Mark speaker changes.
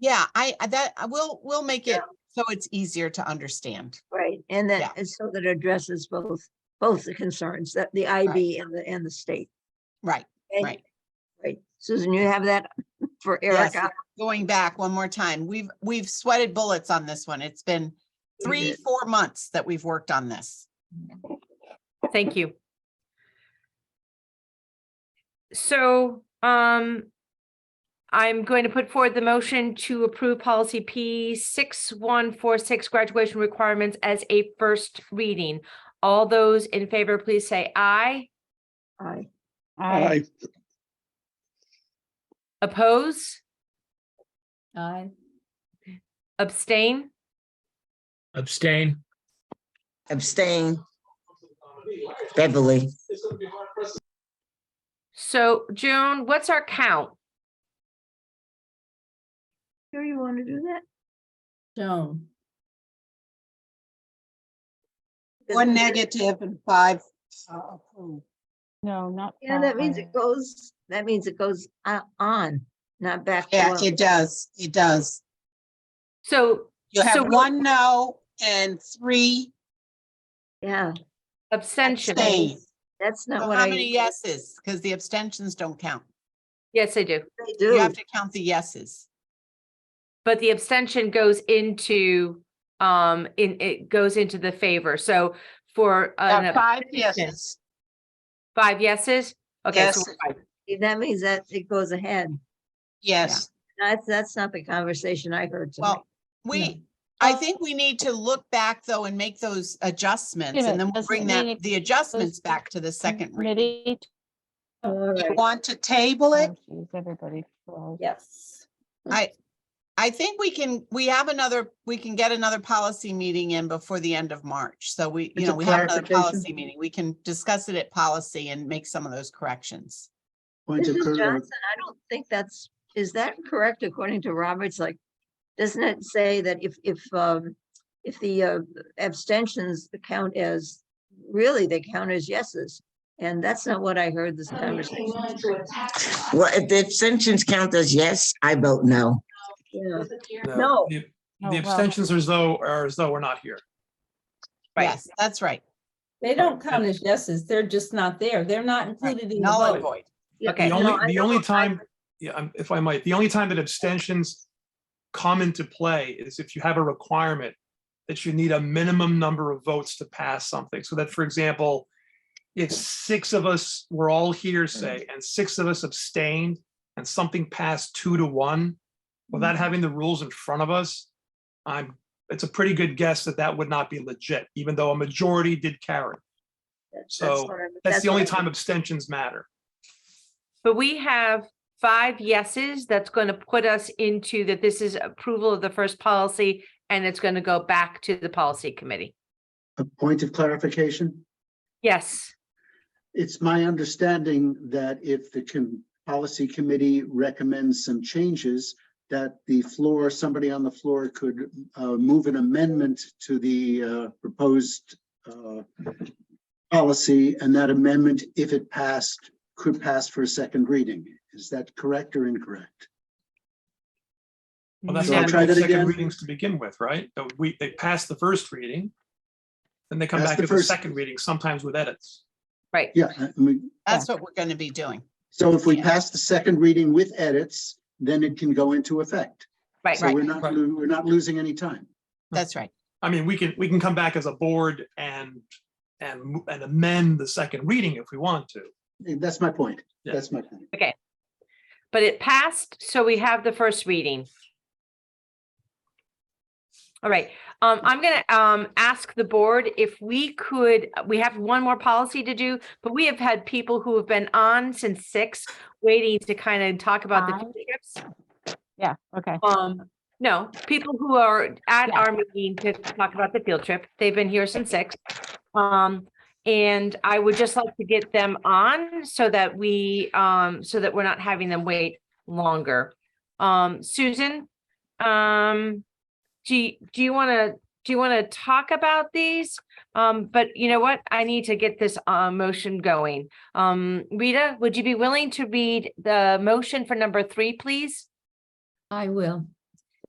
Speaker 1: Yeah, I, I- that, I will, we'll make
Speaker 2: Yeah.
Speaker 1: it so it's easier to understand.
Speaker 2: Right, and
Speaker 1: Yeah.
Speaker 2: that, and so that addresses both, both the concerns, that the IB and the, and the state.
Speaker 1: Right,
Speaker 2: Okay?
Speaker 1: Right.
Speaker 2: Right, Susan, you have that for
Speaker 1: yes,
Speaker 2: Erica?
Speaker 1: going back one more time, we've, we've sweated bullets on this one. It's been three, four months that we've worked on this.
Speaker 3: Thank you. So, um, I'm going to put forward the motion to approve policy P six one four six graduation requirements as a first reading. All those in favor, please say aye.
Speaker 2: Aye.
Speaker 4: Aye.
Speaker 3: Oppose,
Speaker 5: Aye.
Speaker 3: abstain?
Speaker 4: Abstain.
Speaker 6: Abstain. Beverly,
Speaker 3: So June, what's our count?
Speaker 2: Sure you want to do that?
Speaker 5: Joan.
Speaker 1: One negative and five uh, approved.
Speaker 7: No, not.
Speaker 2: Yeah, that means
Speaker 7: five.
Speaker 2: it goes, that means it goes o- on, not back.
Speaker 1: Yeah,
Speaker 2: below.
Speaker 1: it does, it does.
Speaker 3: So
Speaker 1: You
Speaker 3: So
Speaker 1: have
Speaker 3: we-
Speaker 1: one no and three
Speaker 2: Yeah,
Speaker 3: abstention.
Speaker 1: abstain.
Speaker 2: that's
Speaker 1: So
Speaker 2: not what
Speaker 1: How
Speaker 2: I.
Speaker 1: many yeses? Because the abstentions don't count.
Speaker 3: Yes, I do.
Speaker 2: usually
Speaker 1: You
Speaker 2: Do,
Speaker 1: have to count the yeses.
Speaker 3: But the abstention goes into, um, in, it goes into the favor. So for an
Speaker 1: Uh, Five
Speaker 3: abstention,
Speaker 1: yeses.
Speaker 3: five yeses? Okay, so
Speaker 1: Yes.
Speaker 3: we're five.
Speaker 2: that means that it goes ahead.
Speaker 1: Yes,
Speaker 2: That's, that's not the conversation I heard tonight.
Speaker 1: well, we, I think we need to look back though and make those adjustments and then we'll
Speaker 7: doesn't
Speaker 1: bring
Speaker 7: mean
Speaker 1: that,
Speaker 7: it
Speaker 1: the adjustments back to the second reading.
Speaker 7: Committee.
Speaker 2: All
Speaker 1: You
Speaker 2: right.
Speaker 1: Want to table it?
Speaker 7: Oh, geez, Everybody. Oh, falls.
Speaker 5: Yes.
Speaker 1: I think we can, we have another, we can get another policy meeting in before the end of March. So we, you
Speaker 6: Just a
Speaker 1: know, we have another
Speaker 6: clarification.
Speaker 1: policy meeting. We can discuss it at policy and make some of those corrections.
Speaker 8: Point of
Speaker 2: Mrs.
Speaker 8: clar-
Speaker 2: Johnson, I don't think that's, is that correct according to Roberts? Like, doesn't it say that if, if, um, if the uh, abstentions count as, really, they count as yeses? And that's not what I heard this conversation.
Speaker 6: well, if the abstentions count as yes, I vote no.
Speaker 2: Yeah, No.
Speaker 9: No, the-
Speaker 7: Oh,
Speaker 9: The
Speaker 7: well.
Speaker 9: abstentions are as though, are as though we're not here.
Speaker 3: Right.
Speaker 1: Yes, that's right.
Speaker 5: They don't count as yeses. They're just not there. They're not included in the
Speaker 1: Null
Speaker 5: vote.
Speaker 1: and void.
Speaker 2: yeah,
Speaker 3: Okay.
Speaker 9: The
Speaker 2: no, I
Speaker 9: only, the
Speaker 2: know,
Speaker 9: only
Speaker 2: I-
Speaker 9: time, yeah, um, if I might, the only time that abstentions come into play is if you have a requirement that you need a minimum number of votes to pass something. So that, for example, if six of us were all here,
Speaker 2: Mm.
Speaker 9: say, and six of us abstained and something passed two to one,
Speaker 2: Mm.
Speaker 9: without having the rules in front of us, I'm, it's a pretty good guess that that would not be legit, even though a majority did carry.
Speaker 2: that's
Speaker 9: So,
Speaker 2: what I-
Speaker 9: That's the
Speaker 2: what
Speaker 9: only
Speaker 2: I-
Speaker 9: time abstentions matter.
Speaker 3: But we have five yeses. That's going to put us into that this is approval of the first policy and it's going to go back to the policy committee.
Speaker 8: A point of clarification.
Speaker 3: Yes,
Speaker 8: It's my understanding that if the com- policy committee recommends some changes, that the floor, somebody on the floor could uh, move an amendment to the uh, proposed uh, policy, and that amendment, if it passed, could pass for a second reading. Is that correct or incorrect?
Speaker 9: Well, that's
Speaker 8: So
Speaker 9: why
Speaker 8: I'll
Speaker 9: we
Speaker 8: try
Speaker 9: do
Speaker 8: that
Speaker 9: second
Speaker 8: again.
Speaker 9: readings to begin with, right? The- We, they pass the first reading. Then they come
Speaker 8: Pass
Speaker 9: back
Speaker 8: the
Speaker 9: to the
Speaker 8: first-
Speaker 9: second reading, sometimes with edits.
Speaker 3: right.
Speaker 8: Yeah, Hmm. I mean,
Speaker 1: That's what we're going to be doing.
Speaker 8: so if we
Speaker 1: Yeah.
Speaker 8: pass the second reading with edits, then it can go into effect.
Speaker 3: Right.
Speaker 8: So we're not,
Speaker 9: Right.
Speaker 8: lo- we're not losing any time.
Speaker 1: That's right.
Speaker 9: I mean, we can, we can come back as a board and, and, mo- and amend the second reading if we want to.
Speaker 8: That's my point.
Speaker 9: Yeah.
Speaker 8: That's my point.
Speaker 3: But it passed, so we have the first reading. All right, um, I'm gonna, um, ask the board if we could, we have one more policy to do, but we have had people who have been on since six, waiting to kind of talk about the
Speaker 7: Five?
Speaker 3: field trips.
Speaker 7: Yeah, okay.
Speaker 3: Um, no, people who are at
Speaker 7: Yeah.
Speaker 3: our meeting to talk about the field trip, they've been here since six. Um, and I would just like to get them on so that we, um, so that we're not having them wait longer. Um, Susan, um, do, y- do you want to, do you want to talk about these? Um, but you know what? I need to get this, uh, motion going. Um, Rita, would you be willing to read the motion for number three, please?
Speaker 5: I will.